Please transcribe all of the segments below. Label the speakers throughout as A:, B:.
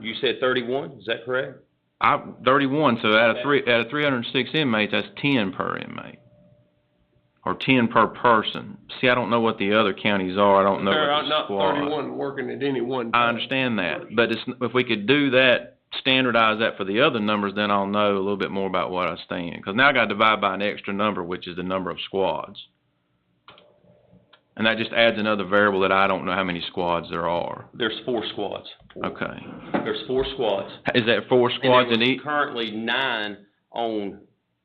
A: you said thirty-one, is that correct?
B: I, thirty-one, so out of three, out of three hundred and six inmates, that's ten per inmate. Or ten per person. See, I don't know what the other counties are, I don't know
C: There
B: what
C: are
B: the
C: not
B: squad.
C: thirty-one working at any one
B: I
C: time.
B: understand that, but it's, if we could do that, standardize that for the other numbers, then I'll know a little bit more about what I stand. Cause now I gotta divide by an extra number, which is the number of squads. And that just adds another variable that I don't know how many squads there are.
A: There's four squads.
B: Okay.
A: There's four squads.
B: Is that four squads
A: And
B: in
A: there was
B: each?
A: Currently nine on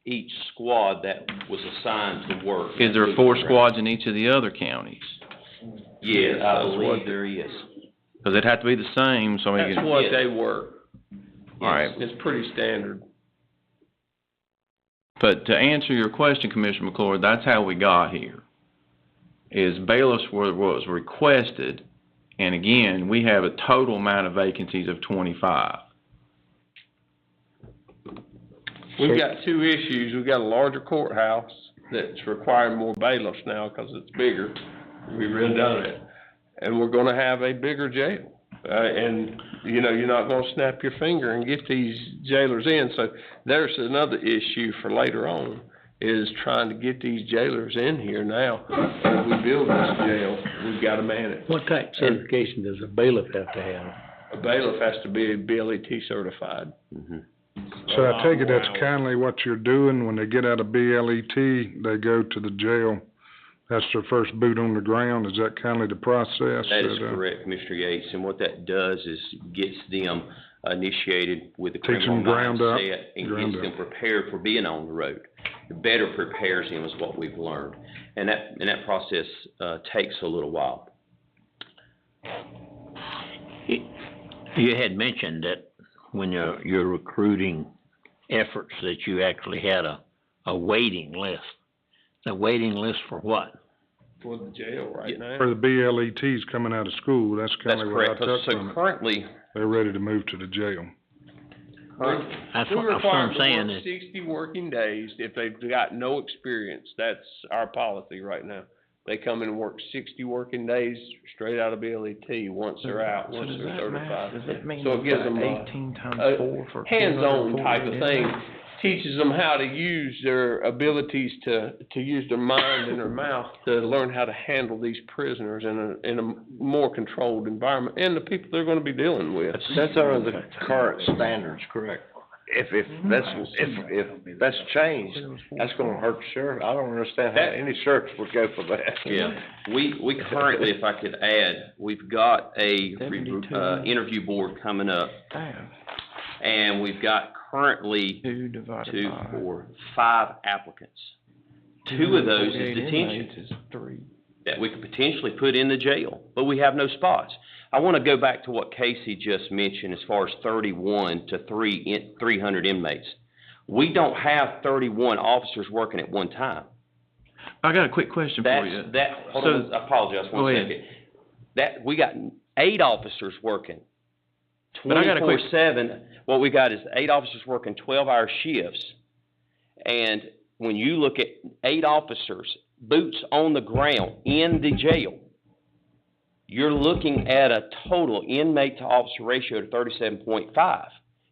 A: each squad that was assigned to work.
B: Is there four squads in each of the other counties?
A: Yes, I
C: That's what
A: believe there is.
B: Cause it'd have to be the same, so I mean,
C: That's
B: you-
C: what
A: Yes.
C: they work.
B: All right.
C: It's pretty standard.
B: but to answer your question, Commissioner McClure, that's how we got here. Is bailiffs were, was requested, and again, we have a total amount of vacancies of twenty-five.
C: We've got two issues. We've got a larger courthouse that's requiring more bailiffs now because it's bigger. We've redone it. And we're gonna have a bigger jail. Uh, and, you know, you're not gonna snap your finger and get these jailers in. So there's another issue for later on, is trying to get these jailers in here now. As we build this jail, we've gotta man it.
D: What type of certification does a bailiff have to have?
C: A bailiff has to be BLET certified.
E: So I take it that's kindly what you're doing, when they get out of BLET, they go to the jail. That's their first boot on the ground, is that kindly the process?
A: That is
E: that, uh,
A: correct, Commissioner Yates, and what that does is gets them initiated with the
E: Takes
A: criminal
E: them ground up,
A: mindset and
E: ground
A: gets
E: up.
A: them prepared for being on the road. It Better prepares them is what we've learned, and that, and that process, uh, takes a little while.
F: You had mentioned that when you're, you're recruiting efforts that you actually had a, a waiting list. The waiting list for what?
C: For the jail right now.
E: For the BLETs coming out of school, that's
A: That's
E: kindly what I
A: correct,
E: took
A: so
E: from it.
A: currently,
E: They're ready to move to the jail.
F: That's
C: We
F: what that's what
C: require
F: I'm
C: them
F: saying
C: to work
F: is,
C: sixty working days if they've got no experience. That's our policy right now. They come in and work sixty working days straight out of BLET, once they're out, once they're certified.
B: that mean
C: So it gives them a-
B: times
C: a hands-on type of thing. Teaches them how to use their abilities to, to use their mind and their mouth to learn how to handle these prisoners in a, in a more controlled environment and the people they're gonna be dealing with.
G: That's under the current standards, correct? If, if that's, if, if that's changed, that's gonna hurt the sheriff. I don't understand how
A: That-
G: any sheriff would go for that.
A: Yeah, we, we currently, if I could add, we've got a, re- uh, interview board coming up. And we've got currently
B: Two divided
A: two, four, five applicants. Two of those is detention that we could potentially put in the jail, but we have no spots. I want to go back to what Casey just mentioned as far as thirty-one to three, in- three hundred inmates. We don't have thirty-one officers working at one time.
B: I got a quick question for
A: That's,
B: you.
A: that, hold on,
B: Oh, So-
A: I apologize,
B: Go
A: one
B: ahead.
A: second. That, we got eight officers working.
B: But I got a
A: Twenty-four
B: quick-
A: seven, what we got is eight officers working twelve-hour shifts. And when you look at eight officers, boots on the ground in the jail, you're looking at a total inmate to officer ratio of thirty-seven point five.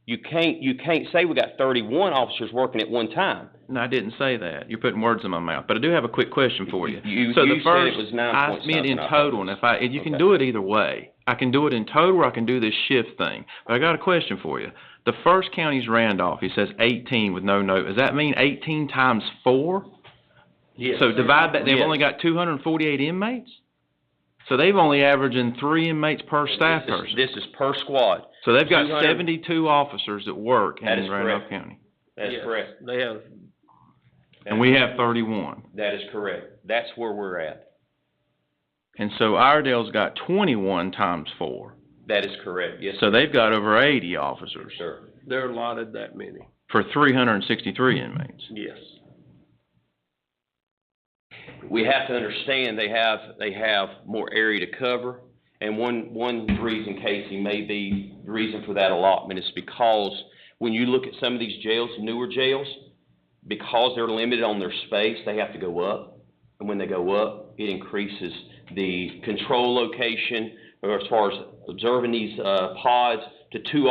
A: You can't, you can't say we got thirty-one officers working at one time.
B: No, I didn't say that. You're putting words in my mouth, but I do have a quick question for you.
A: You-
B: So
A: you
B: the
A: said
B: first-
A: it was nine point
B: I meant in
A: something, I
B: total, and if I, you can
A: Okay.
B: do it either way. I can do it in total, or I can do this shift thing. But I got a question for you. The first county's Randolph, he says eighteen with no note. Does that mean eighteen times four?
C: Yes.
B: So divide that, they've
A: Yes.
B: only got two hundred and forty-eight inmates? So they've only averaging three inmates per staff
A: This is-
B: person.
A: This is per squad.
B: So they've got
A: 200
B: seventy-two officers that work in
A: That is
B: Randolph
A: correct.
B: County.
A: That's
C: Yes,
A: correct.
C: They have
B: And we have thirty-one.
A: That is correct. That's where we're at.
B: And so Iredale's got twenty-one times four.
A: That is correct. Yes,
B: So they've got over eighty officers
A: sir.
C: They're allotted that many,
B: for three hundred and sixty-three inmates.
C: yes.
A: We have to understand they have, they have more area to cover. And one, one reason, Casey, may be, the reason for that allotment is because when you look at some of these jails, newer jails, because they're limited on their space, they have to go up. And when they go up, it increases the control location, or as far as observing these, uh, pods to two